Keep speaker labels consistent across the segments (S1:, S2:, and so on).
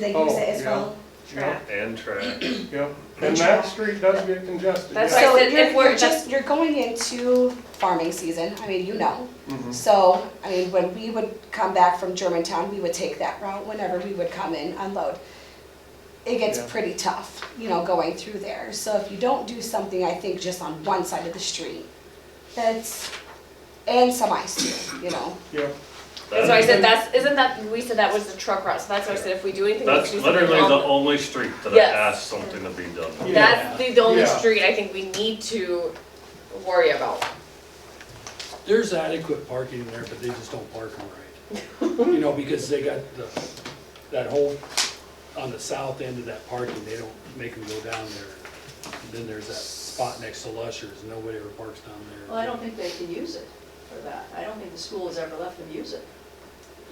S1: They use
S2: Oh,
S1: it as
S2: yeah.
S1: well.
S2: Yep,
S3: And track.
S2: yep. And that street does get congested.
S4: That's
S2: yeah.
S4: why I
S5: So
S4: said
S5: you're,
S4: if we're-
S5: you're just, you're going into farming season, I mean, you know.
S2: Mhm.
S5: So, I mean, when we would come back from Germantown, we would take that route whenever we would come in, unload. It gets
S2: Yeah.
S5: pretty tough, you know, going through there. So if you don't do something, I think, just on one side of the street, that's, and some ice too, you know.
S2: Yep,
S4: That's why I said that's, isn't that, we said that was the truck route, so that's why I said if we do anything, we
S3: That's
S4: should do something
S3: literally the
S4: on-
S3: only street that I
S4: Yes.
S3: asked something to be done.
S2: Yeah.
S4: That's the, the only
S2: Yeah.
S4: street I think we need to worry about.
S6: There's adequate parking there, but they just don't park them right. You know, because they got the, that whole, on the south end of that parking, they don't make them go down there. And Then there's that spot next to Lushers, nobody ever parks down there.
S7: Well, I don't think they can use it for that. I don't think the school has ever let them use it.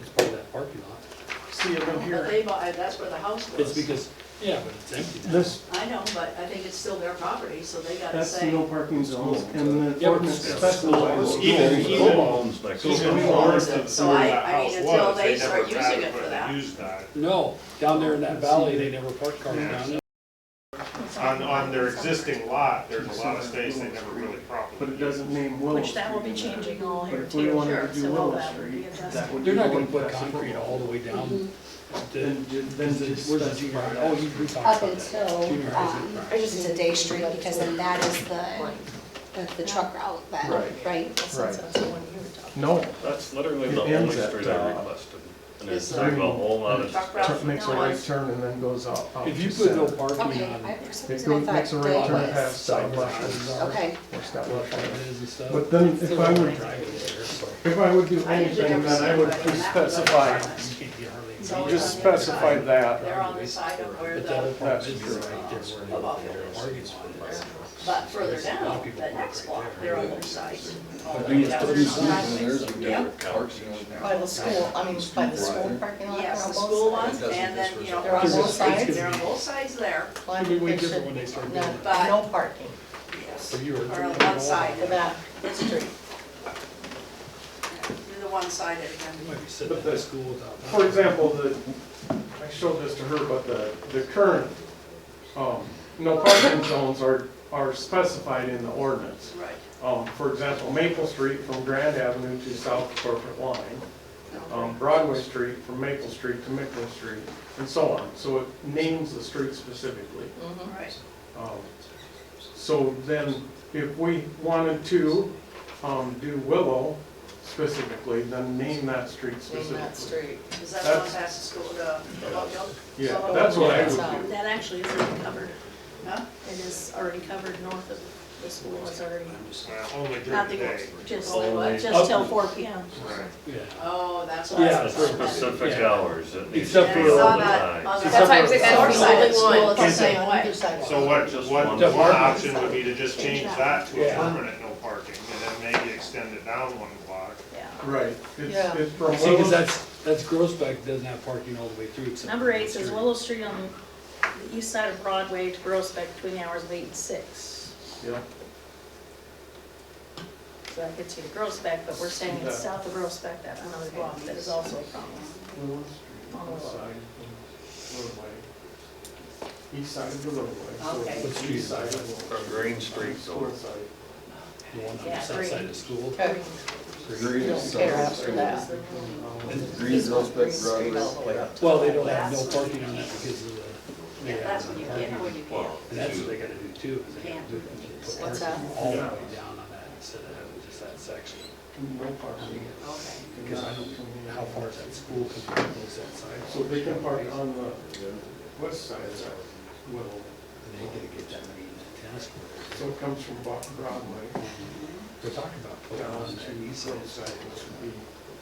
S6: It's part of that parking lot.
S2: see it in
S7: But
S2: here.
S7: they, bought- uh, that's where the house
S6: It's
S7: was.
S6: because, yeah, but it's empty now.
S8: This,
S7: I know, but I think it's still their property, so they gotta
S8: that's the
S7: say.
S8: no parking zones, and the
S6: Yeah, but
S8: ordinance
S6: it's
S8: specifies.
S3: Even,
S8: schools.
S3: even homes next to
S7: Schools.
S3: them.
S7: Schools. So I- I mean, until they start using it for that.
S9: Use that
S6: No, down there in that valley, they never park cars down there.
S9: on, on their existing lot, there's a lot of space they never really
S2: But
S9: properly
S2: it
S9: used.
S2: doesn't name Willow
S10: Which
S2: Street
S10: that will be
S2: in there.
S10: changing all
S2: But
S10: here
S2: if we
S10: too,
S2: wanted
S10: sure,
S2: to do
S10: so all
S2: Willow
S10: that would be
S2: Street,
S10: adjusted.
S2: that would be.
S6: They're not gonna
S2: one
S6: put
S2: accessible
S6: concrete
S2: road.
S6: all the way down. to-
S2: Then, ju- then just.
S6: Where's the
S2: specify
S6: junior high?
S2: that.
S6: Oh, you, we
S5: Mm-hmm. Up
S6: talked about that. Junior
S5: until,
S6: high's in
S5: um,
S6: front.
S5: it's a day street, because then that is the, the- the truck route then,
S8: Right.
S5: right?
S8: Right.
S10: That's the one you were talking
S8: No,
S3: That's literally
S8: It
S3: the only
S8: ends at,
S3: street I
S8: uh,
S3: requested. And it's
S7: is
S3: took a
S2: the-
S3: whole lot of.
S7: Truck
S2: Truck
S7: route.
S2: makes a right turn and then goes out. out
S6: If you
S2: to
S6: put no
S2: center.
S6: parking
S5: Okay,
S6: on.
S5: I, for some
S2: It
S5: reason I
S2: goes,
S5: thought
S2: makes a right
S5: day
S2: turn
S5: was-
S2: past South Russian.
S5: Okay.
S2: Or South
S6: Well,
S2: Russian.
S6: it is and stuff.
S2: But then if I would,
S6: Drive it there, so you
S2: if I would do
S7: I usually
S2: anything,
S7: never
S2: then I
S7: see
S2: would
S7: anybody on that road.
S2: specify,
S6: can't get hardly.
S7: So it's
S2: just
S7: on the other
S2: specify
S7: side.
S2: that.
S7: They're on the side of where
S6: But that
S7: the,
S6: would probably
S2: That's
S6: be
S2: true.
S6: right there where
S7: Of all the
S6: the
S7: others.
S6: parking lot is.
S7: but further
S6: A lot of
S7: down,
S6: people
S7: that
S6: park
S7: next
S6: right
S7: block,
S6: there.
S7: they're on their side. all the
S6: we
S7: way
S6: just put
S7: down. Yep,
S10: about. By the school, I mean, by the school parking lot.
S7: yes,
S10: on
S7: the
S10: both
S7: school
S10: sides.
S7: ones, and then, you know,
S10: They're on
S7: across the
S10: both
S7: street,
S10: sides?
S7: They're on both sides there,
S10: Well, I
S6: Maybe we
S10: think
S6: give
S10: they
S6: it
S10: should-
S6: when they start
S10: No,
S6: doing it.
S10: no parking
S7: yes,
S6: So you are.
S7: or on one side,
S10: for that street.
S7: they're the one side again.
S6: You Might be sitting at the school without.
S2: For example, the, I showed this to her, but the, the current, um, no parking zones are, are specified in the ordinance.
S7: Right.
S2: Um, for example, Maple Street from Grand Avenue to South Corporate Line, um, Broadway Street from Maple Street to Mickle Street, and so on. So it names the street specifically.
S7: Right.
S2: Um, So then, if we wanted to, um, do Willow specifically, then name that street
S10: Name
S2: specifically.
S10: that street.
S7: Is that the one past the school, Oh, the, the boat building?
S2: Yeah, that's what I would do.
S10: That actually is already covered.
S7: Huh?
S10: It is already covered north of the school, it's already,
S9: Well, Only during
S10: not
S9: the
S10: the,
S9: day.
S10: just,
S3: Only
S10: just till four P M.
S9: Right.
S6: Yeah.
S7: Oh, that's what I
S6: Yeah,
S7: was
S6: for-
S7: talking about.
S3: Specific
S6: Yeah.
S3: hours. that needs to
S6: Except
S3: be
S6: for-
S3: all
S7: I saw
S3: the
S7: that
S3: time.
S7: on the-
S4: That's why I'm saying that's
S7: North
S4: the
S7: side
S4: only
S7: of school,
S4: one.
S7: it's the same way.
S9: So what, what,
S3: Just
S9: one
S6: one.
S9: option would be to just change that to a
S6: Yeah.
S9: permanent no parking, and then maybe extend it down one block.
S7: Yeah.
S2: Right, it's,
S10: Yeah.
S2: it's from
S6: See,
S2: Willow,
S6: cause that's, that's Grossbeck doesn't have parking all the way through except.
S10: Number
S6: for
S10: eight
S6: that
S10: says
S6: street.
S10: Willow Street on the east side of Broadway to Grossbeck between the hours of eight and six.
S2: yeah,
S10: So that gets you to Grossbeck, but we're saying it's
S2: Yeah.
S10: south of Grossbeck, that another block that is also a problem.
S2: Willow Street,
S10: On
S2: west
S10: Willow.
S2: side of Roadway. East side of the roadway. so
S7: Okay.
S2: it's
S6: Street.
S2: East side of
S3: From Green Street
S2: School
S3: over.
S2: side.
S6: The one on the
S10: Yeah,
S6: south side
S10: green.
S6: of school.
S10: Green.
S8: Care after that.
S2: Um,
S6: Well, they don't have no parking on that because of the. they
S7: Yeah,
S6: have
S7: that's
S6: no
S7: when you
S6: parking.
S7: can, when you can.
S3: Well,
S6: And that's what they gotta do too, is they gotta do, put
S7: What's
S6: parking all the way down on that instead of having just that section.
S2: No parking.
S6: Because I don't know how far that school can close that side.
S2: So they can park on the west side of that Willow.
S6: And they gotta get that many in that tennis court.
S2: So it comes from Bo- Broadway
S6: We're talking about putting
S2: down
S6: on
S2: to
S6: that
S2: east
S6: east side,
S2: side, which would be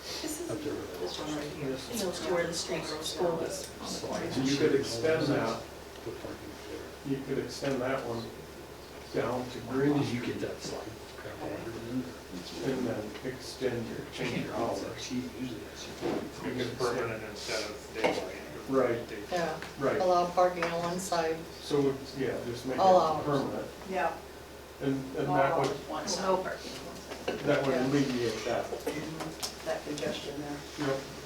S6: up there.
S7: This one right here.
S10: It goes to where the street school is.
S2: So you could extend that,
S6: Put parking there.
S2: you could extend that one down to Green
S6: Did you get that slide? Crap, I ordered it.
S2: and then extend your, change your hours.
S6: She usually has.
S9: You could permanent instead of daylight.
S2: Right,
S5: Yeah.
S2: right.
S5: Allow parking on one side.
S2: So, it's- yeah, just make
S5: All
S2: it
S5: hours.
S2: permanent.
S7: Yeah.
S2: And, and that
S7: All
S2: would,
S7: one
S10: No
S7: side,
S10: parking.
S2: that would alleviate that.
S7: that congestion there.
S2: Yep.